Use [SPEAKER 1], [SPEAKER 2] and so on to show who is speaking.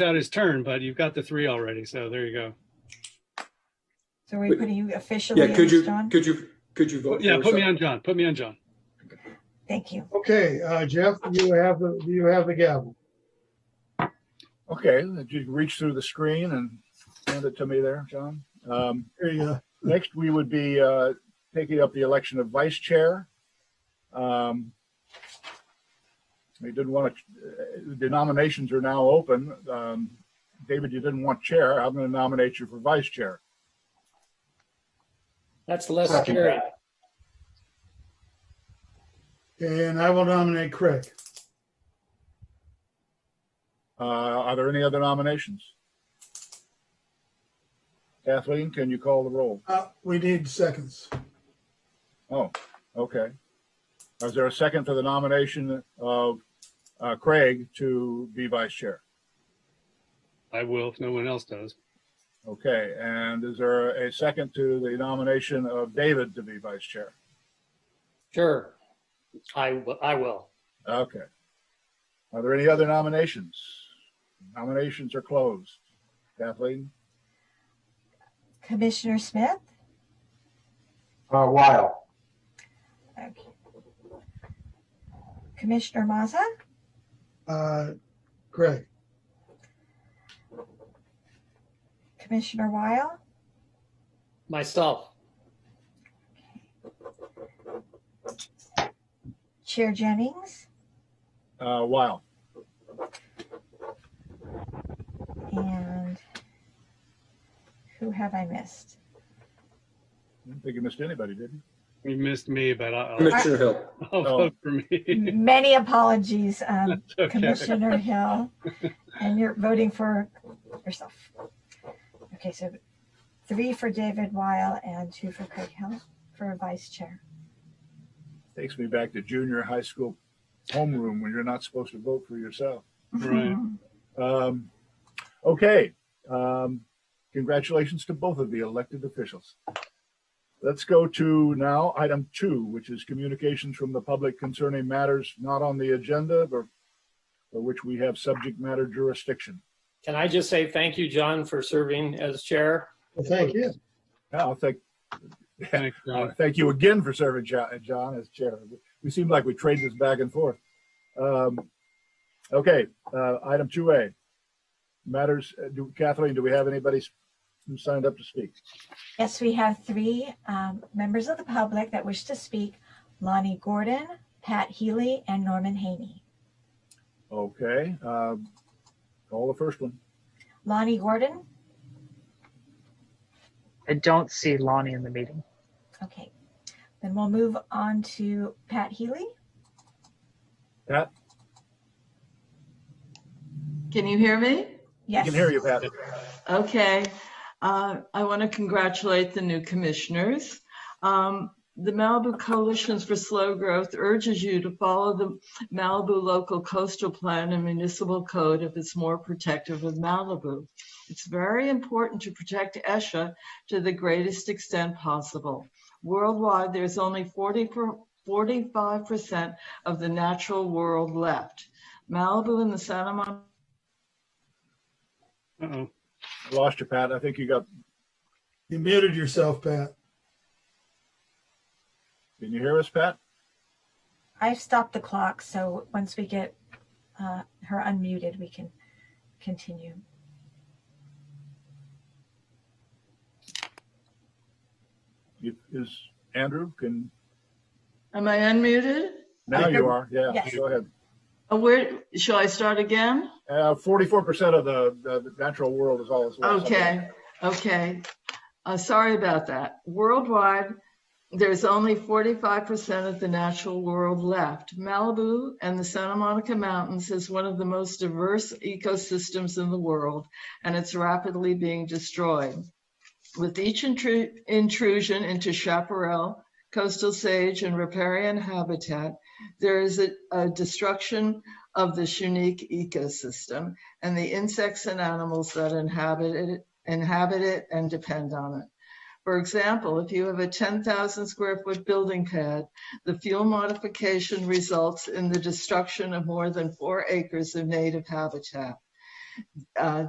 [SPEAKER 1] out his turn, but you've got the three already, so there you go.
[SPEAKER 2] So are we
[SPEAKER 3] Wait.
[SPEAKER 2] putting you officially
[SPEAKER 3] Yeah, could
[SPEAKER 2] as
[SPEAKER 3] you,
[SPEAKER 2] John?
[SPEAKER 3] could you, could you vote?
[SPEAKER 1] Yeah,
[SPEAKER 3] for
[SPEAKER 1] put me
[SPEAKER 3] us?
[SPEAKER 1] on John, put me on John.
[SPEAKER 2] Thank you.
[SPEAKER 4] Okay, uh, Jeff, you have the, you have the gavel.
[SPEAKER 5] Okay, that you reach through the screen and hand it to me there, John. Um,
[SPEAKER 4] There you go.
[SPEAKER 5] Next, we would be uh, taking up the election of vice chair. Um, We didn't want to, the nominations are now open. Um, David, you didn't want chair. I'm going to nominate you for vice chair.
[SPEAKER 6] That's less
[SPEAKER 4] Second.
[SPEAKER 6] scary.
[SPEAKER 4] And I will nominate Craig.
[SPEAKER 5] Uh, Are there any other nominations? Kathleen, can you call the roll?
[SPEAKER 4] Uh, we need seconds.
[SPEAKER 5] Oh, okay. Is there a second for the nomination of uh, Craig to be vice chair?
[SPEAKER 1] I will if no one else does.
[SPEAKER 5] Okay, and is there a second to the nomination of David to be vice chair?
[SPEAKER 6] Sure. I, w- I will.
[SPEAKER 5] Okay. Are there any other nominations? Nominations are closed. Kathleen?
[SPEAKER 2] Commissioner Smith?
[SPEAKER 7] Uh, Weil,
[SPEAKER 2] Okay. Commissioner Maza?
[SPEAKER 4] Uh, Craig,
[SPEAKER 2] Commissioner Weil?
[SPEAKER 6] Myself.
[SPEAKER 2] Chair Jennings?
[SPEAKER 5] Uh, Wow.
[SPEAKER 2] And who have I missed?
[SPEAKER 5] I didn't think you missed anybody, did you?
[SPEAKER 1] You missed me, but I'll,
[SPEAKER 3] Commissioner Hill.
[SPEAKER 1] I'll vote for me.
[SPEAKER 2] Many apologies, um,
[SPEAKER 1] It's okay.
[SPEAKER 2] Commissioner Hill. And you're voting for yourself. Okay, so three for David Weil and two for Craig Hill for vice chair.
[SPEAKER 5] Takes me back to junior high school homeroom when you're not supposed to vote for yourself.
[SPEAKER 1] Right.
[SPEAKER 5] Um, okay. Um, congratulations to both of the elected officials. Let's go to now item two, which is communications from the public concerning matters not on the agenda, but for which we have subject matter jurisdiction.
[SPEAKER 6] Can I just say thank you, John, for serving as chair?
[SPEAKER 4] well, thank you.
[SPEAKER 5] Yeah, I'll thank,
[SPEAKER 1] Thanks,
[SPEAKER 5] uh,
[SPEAKER 1] John.
[SPEAKER 5] thank you again for serving John, John as chair. We seem like we trade this back and forth. Um, okay, uh, item two A. Matters, uh, do, Kathleen, do we have anybody s- who signed up to speak?
[SPEAKER 2] Yes, we have three um, members of the public that wish to speak. Lonnie Gordon, Pat Healy, and Norman Haney.
[SPEAKER 5] Okay, um, call the first one.
[SPEAKER 2] Lonnie Gordon,
[SPEAKER 8] I don't see Lonnie in the meeting.
[SPEAKER 2] okay. Then we'll move on to Pat Healy.
[SPEAKER 5] Pat,
[SPEAKER 9] Can you hear me?
[SPEAKER 5] I
[SPEAKER 2] Yes.
[SPEAKER 5] can hear you, Pat.
[SPEAKER 9] Okay. Uh, I want to congratulate the new commissioners. Um, The Malibu Coalitions for Slow Growth urges you to follow the Malibu Local Coastal Plan and Municipal Code if it's more protective of Malibu. It's very important to protect Esha to the greatest extent possible. Worldwide, there's only 40 per- 45% of the natural world left. Malibu and the Santa Monica
[SPEAKER 1] Uh-oh.
[SPEAKER 5] I Lost you, Pat. I think you got,
[SPEAKER 4] You muted yourself, Pat.
[SPEAKER 5] can you hear us, Pat?
[SPEAKER 2] I've stopped the clock, so once we get uh, her unmuted, we can continue.
[SPEAKER 5] You- Is Andrew, can,
[SPEAKER 9] Am I unmuted?
[SPEAKER 5] now you are, yeah,
[SPEAKER 2] Yes.
[SPEAKER 5] go ahead.
[SPEAKER 9] Uh, Where, shall I start again?
[SPEAKER 5] Uh, forty-four percent of the, the the natural world is all that's left.
[SPEAKER 9] Okay, okay. Uh, sorry about that. Worldwide, there's only 45% of the natural world left. Malibu and the Santa Monica Mountains is one of the most diverse ecosystems in the world, and it's rapidly being destroyed. With each intru- intrusion into chaparral, coastal sage, and riparian habitat, there is a, a destruction of this unique ecosystem and the insects and animals that inhabit it, inhabit it and depend on it. For example, if you have a 10,000 square foot building pad, the fuel modification results in the destruction of more than four acres of native habitat. uh,